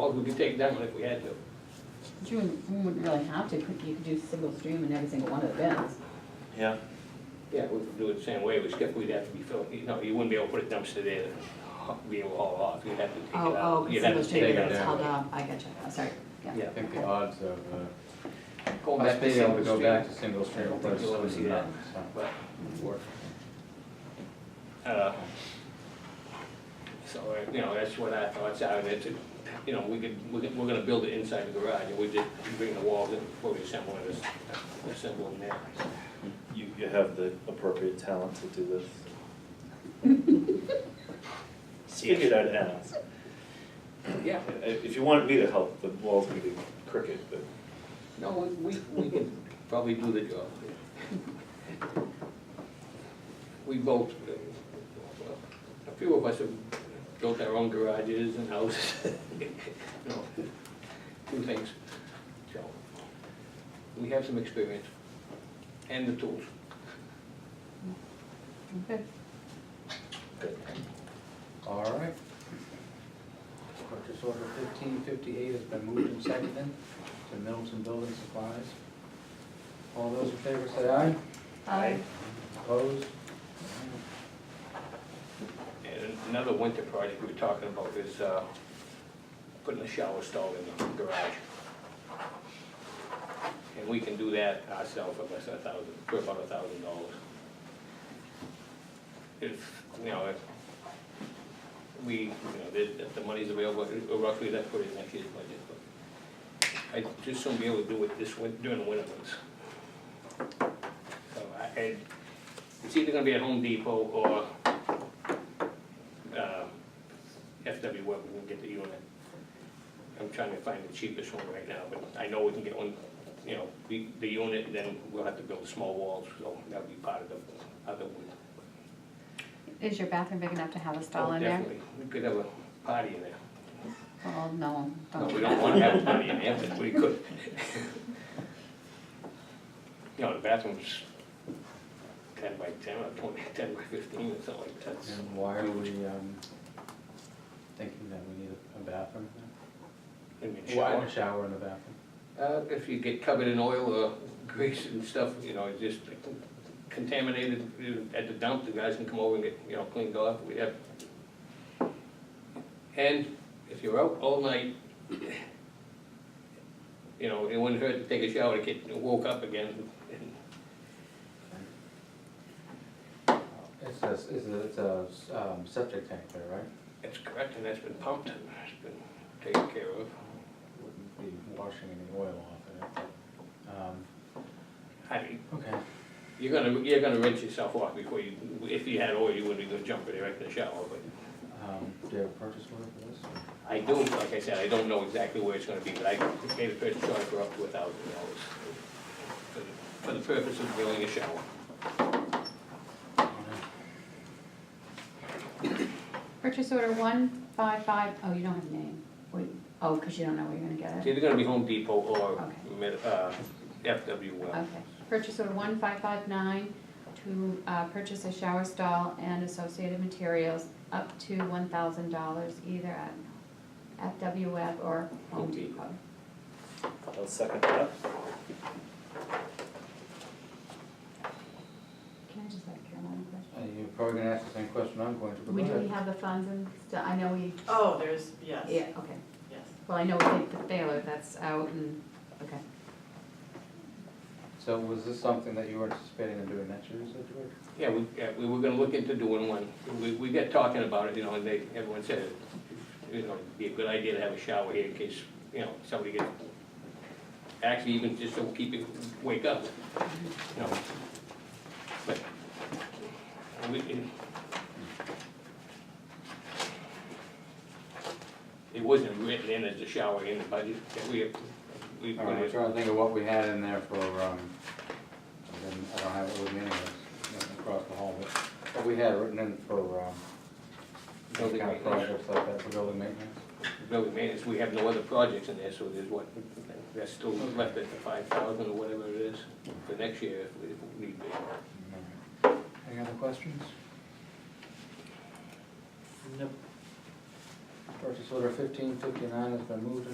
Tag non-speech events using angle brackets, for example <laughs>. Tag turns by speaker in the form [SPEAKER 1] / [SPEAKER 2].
[SPEAKER 1] Well, we could take that one if we had to.
[SPEAKER 2] You wouldn't- you wouldn't really have to, could- you could do single stream in every single one of the bins.
[SPEAKER 3] Yeah,
[SPEAKER 1] Yeah, we could do it the same way, except we'd have to be filling, you know, you wouldn't be able to put a dumpster there, and be able to haul off, you'd have to take it
[SPEAKER 2] Oh,
[SPEAKER 1] out.
[SPEAKER 2] oh,
[SPEAKER 1] You'd
[SPEAKER 2] single
[SPEAKER 1] have to
[SPEAKER 2] stream,
[SPEAKER 1] take
[SPEAKER 2] if
[SPEAKER 1] it
[SPEAKER 2] it's
[SPEAKER 1] out.
[SPEAKER 2] held up, I get you, I'm sorry, yeah.
[SPEAKER 1] Yeah.
[SPEAKER 4] I think the
[SPEAKER 2] Okay.
[SPEAKER 4] odds of, uh,
[SPEAKER 1] Going
[SPEAKER 4] us
[SPEAKER 1] back to
[SPEAKER 4] being able to
[SPEAKER 1] single
[SPEAKER 4] go back to
[SPEAKER 1] stream.
[SPEAKER 4] single
[SPEAKER 1] I
[SPEAKER 4] stream
[SPEAKER 1] don't
[SPEAKER 4] are
[SPEAKER 1] think you'll ever see
[SPEAKER 4] slim to
[SPEAKER 1] that.
[SPEAKER 4] none, so.
[SPEAKER 1] But, uh, so, uh, you know, that's what I thought, I mean, it's, a- you know, we could, we're, we're gonna build it inside the garage, and we did, we bring the walls in, before we assemble it, just assemble them there.
[SPEAKER 3] you, you have the appropriate talent to do this. Just Figured I'd ask.
[SPEAKER 1] Yeah,
[SPEAKER 3] I- If you wanted me to help, the wall's gonna be crooked, but
[SPEAKER 1] no, we, we, we could probably do the job. We both, uh, a few of us have built our own garages and houses, <laughs> you know, do things, so. We have some experience and the tools.
[SPEAKER 2] Okay.
[SPEAKER 3] good.
[SPEAKER 4] All right. Purchase order fifteen fifty-eight has been moved and seconded to Middleton Building Supplies. All those in favor say aye.
[SPEAKER 2] Um,
[SPEAKER 4] Opposed?
[SPEAKER 1] And another winter project we were talking about is, uh, putting a shower stall in the garage. And we can do that ourselves for less than a thousand, for about a thousand dollars. If, you know, if we, you know, the, the money's available, uh, roughly that's put in next year's budget, but I just won't be able to do it this win, during the winter months. So I, I, it's either gonna be at Home Depot or um, FW Web, we can get the unit. I'm trying to find the cheapest one right now, but I know we can get one, you know, the, the unit, then we'll have to build small walls, so that'll be part of the other one.
[SPEAKER 2] Is your bathroom big enough to have a stall in there?
[SPEAKER 1] Oh, Definitely, we could have a party in there.
[SPEAKER 2] Well, Oh, no,
[SPEAKER 1] No,
[SPEAKER 2] don't
[SPEAKER 1] we
[SPEAKER 2] do
[SPEAKER 1] don't
[SPEAKER 2] that.
[SPEAKER 1] wanna have a party in there, but we could. You know, the bathroom's ten by ten, or twenty, ten by fifteen, or something like that.
[SPEAKER 4] And why are we, um, thinking that we need a- a bathroom?
[SPEAKER 1] Maybe a
[SPEAKER 4] Why
[SPEAKER 1] shower.
[SPEAKER 4] a shower and a bathroom?
[SPEAKER 1] Uh, if you get covered in oil or grease and stuff, you know, it's just contaminated uh, at the dump, the guys can come over and get, you know, cleaned off, we have. And if you're out all night, you know, it wouldn't hurt to take a shower to get woke up again.
[SPEAKER 4] It's a, it's a, it's a, um, septic tank there, right?
[SPEAKER 1] That's correct, and that's been pumped, and it's been taken care of.
[SPEAKER 4] Wouldn't be washing any oil off of it. Um,
[SPEAKER 1] I mean,
[SPEAKER 4] Okay.
[SPEAKER 1] you're gonna, you're gonna rinse yourself off before you, if you had oil, you wouldn't be gonna jump direct in the shower, but.
[SPEAKER 4] Um, Do you have a purchase order for this?
[SPEAKER 1] I do, like I said, I don't know exactly where it's gonna be, but I gave a purchase order for up to a thousand dollars for the purpose of building a shower.
[SPEAKER 4] Uh,
[SPEAKER 2] Purchase order one five five, oh, you don't have a name, wait, oh, because you don't know where you're gonna
[SPEAKER 1] It's
[SPEAKER 2] get it,
[SPEAKER 1] either gonna be Home Depot or
[SPEAKER 2] Okay.
[SPEAKER 1] Med- uh, FW Well.
[SPEAKER 2] okay. Purchase order one five five nine to, uh, purchase a shower stall and associated materials up to one thousand dollars either at FW Web or Home
[SPEAKER 1] Home
[SPEAKER 2] Depot.
[SPEAKER 3] I'll second that.
[SPEAKER 2] Can I just ask Caroline a question?
[SPEAKER 4] Uh, You're probably gonna ask the same question I'm going to, but
[SPEAKER 2] We,
[SPEAKER 4] go
[SPEAKER 2] do we
[SPEAKER 4] ahead.
[SPEAKER 2] have the funds and stuff, I know we,
[SPEAKER 5] Oh, there's, yes,
[SPEAKER 2] yeah,
[SPEAKER 5] yes.
[SPEAKER 2] okay, well, I know we did the Baylor, that's out and, okay.
[SPEAKER 4] So was this something that you were anticipating on doing next year, is that George?
[SPEAKER 1] Yeah, we, yeah, we were gonna look into doing one, we, we got talking about it, you know, and they, everyone said, you know, it'd be a good idea to have a shower here in case, you know, somebody gets, actually even just to keep it, wake up, you know. But, we, it, it wasn't written in as a shower in the budget, that we, we
[SPEAKER 4] All
[SPEAKER 1] put
[SPEAKER 4] right, I'm
[SPEAKER 1] it,
[SPEAKER 4] trying to think of what we had in there for, um, I didn't- I don't have it with me anyways, nothing across the hall, but what we had written in for, um, those
[SPEAKER 1] Building
[SPEAKER 4] kind of
[SPEAKER 1] maintenance.
[SPEAKER 4] projects like that for building maintenance.
[SPEAKER 1] building maintenance, we have no other projects in there, so there's what, that's still left at the five thousand or whatever it is for next year if we if we need be.
[SPEAKER 4] All right. Any other questions?
[SPEAKER 3] Nope.
[SPEAKER 4] Purchase order fifteen fifty-nine has been moved and